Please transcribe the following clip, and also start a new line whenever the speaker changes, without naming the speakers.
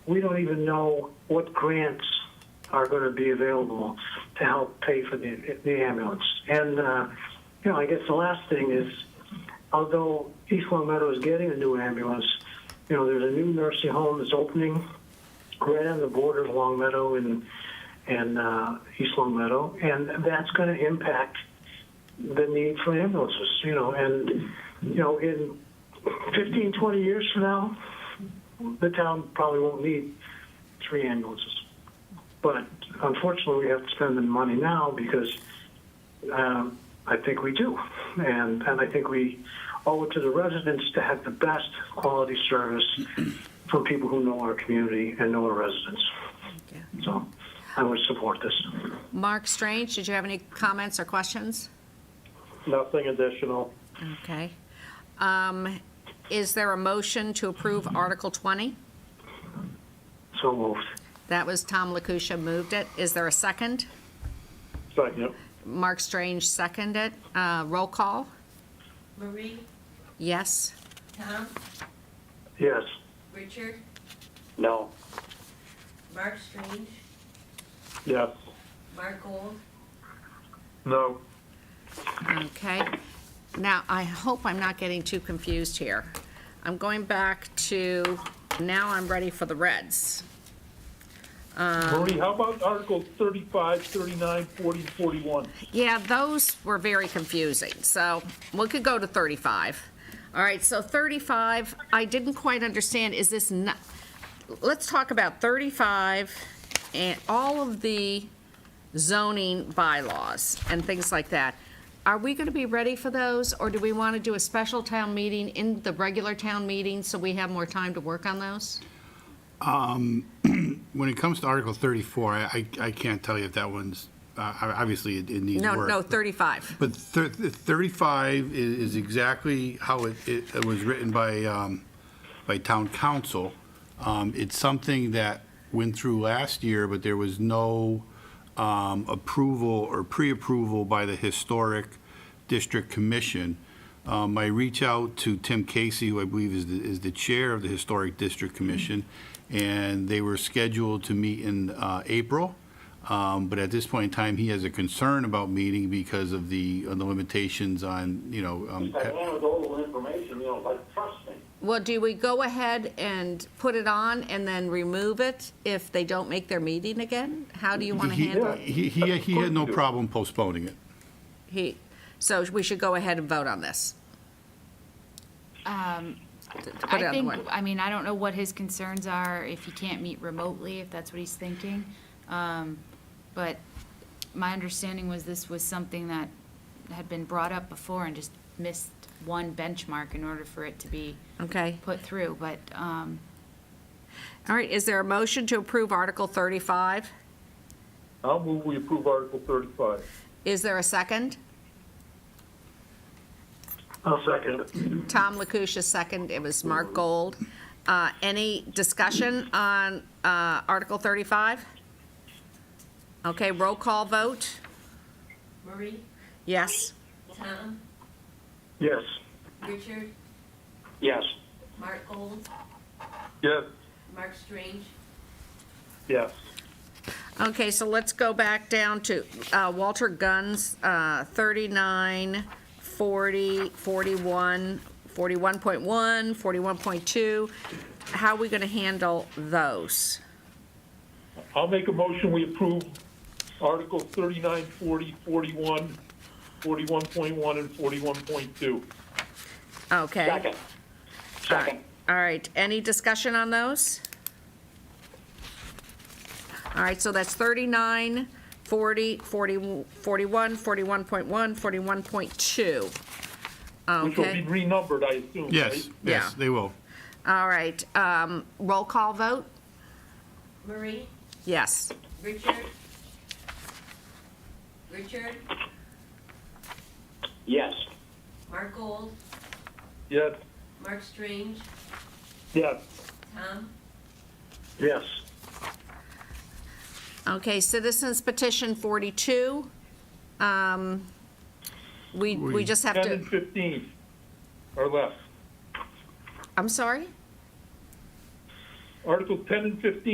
we don't even know what grants are going to be available to help pay for the, the ambulance. And, uh, you know, I guess the last thing is, although East Long Meadow is getting a new ambulance, you know, there's a new nursing home that's opening right on the border of Long Meadow and, and uh, East Long Meadow, and that's going to impact the need for ambulances, you know, and, you know, in 15, 20 years from now, the town probably won't need three ambulances. But unfortunately, we have to spend the money now because um, I think we do. And, and I think we owe it to the residents to have the best quality service from people who know our community and know our residents. So I would support this.
Mark Strange, did you have any comments or questions?
Nothing additional.
Okay. Um, Is there a motion to approve Article 20?
So moved.
That was Tom Lakusha moved it. Is there a second?
Second.
Mark Strange seconded. Uh, Roll call?
Marie,
Yes?
Tom,
Yes.
Richard,
No.
Mark Strange,
Yes.
Mark Gold,
No.
Okay. Now, I hope I'm not getting too confused here. I'm going back to, now I'm ready for the Reds.
Marie, how about Articles 35, 39, 40, 41?
Yeah, those were very confusing, so we could go to 35. All right, so 35, I didn't quite understand, is this not, let's talk about 35 and all of the zoning bylaws and things like that. Are we going to be ready for those, or do we want to do a special town meeting in the regular town meeting so we have more time to work on those?
When it comes to Article 34, I, I I can't tell you if that one's, uh, obviously, it it needs
No,
work.
no, 35.
But thir- 35 i- is exactly how it- it it was written by, um, by town council. Um, It's something that went through last year, but there was no um, approval or pre-approval by the Historic District Commission. Um, I reach out to Tim Casey, who I believe is the, is the chair of the Historic District Commission, and they were scheduled to meet in uh, April. Um, But at this point in time, he has a concern about meeting because of the, of the limitations on, you know. um,
I wanted all the information, you know, like, trust me.
Well, do we go ahead and put it on and then remove it if they don't make their meeting again? How do you want to
he-
handle it?
He, he, he had no problem postponing it.
He, so we should go ahead and vote on this. put it
Um, I
on the
think,
one.
I mean, I don't know what his concerns are, if he can't meet remotely, if that's what he's thinking. Um, But my understanding was this was something that had been brought up before and just missed one benchmark in order for it to be
Okay.
put through, but, um,
All right, is there a motion to approve Article 35?
I'll move we approve Article 35.
Is there a second?
I'll second.
Tom Lakusha second, it was Mark Gold. Uh, Any discussion on uh, Article 35? Okay, roll call vote?
Marie,
Yes?
Tom,
Yes.
Richard,
Yes.
Mark Gold,
Yes.
Mark Strange,
Yes.
Okay, so let's go back down to uh, Walter Gunn's uh, 39, 40, 41, 41.1, 41.2. How are we going to handle those?
I'll make a motion we approve Articles 39, 40, 41, 41.1, and 41.2.
Okay.
Second.
All right.
Second.
All right, any discussion on those? All right, so that's 39, 40, 40, 41, 41.1, 41.2.
Which will
Okay,
be renumbered, I assume, right?
Yes,
Yeah.
yes, they will.
all right, um, roll call vote?
Marie,
Yes.
Richard, Richard,
Yes.
Mark Gold,
Yes.
Mark Strange,
Yes.
Tom,
Yes.
Okay, citizens petition 42. Um, We, we
We-
just have
10 and
to,
15 are left.
I'm sorry?
Articles 10 and 15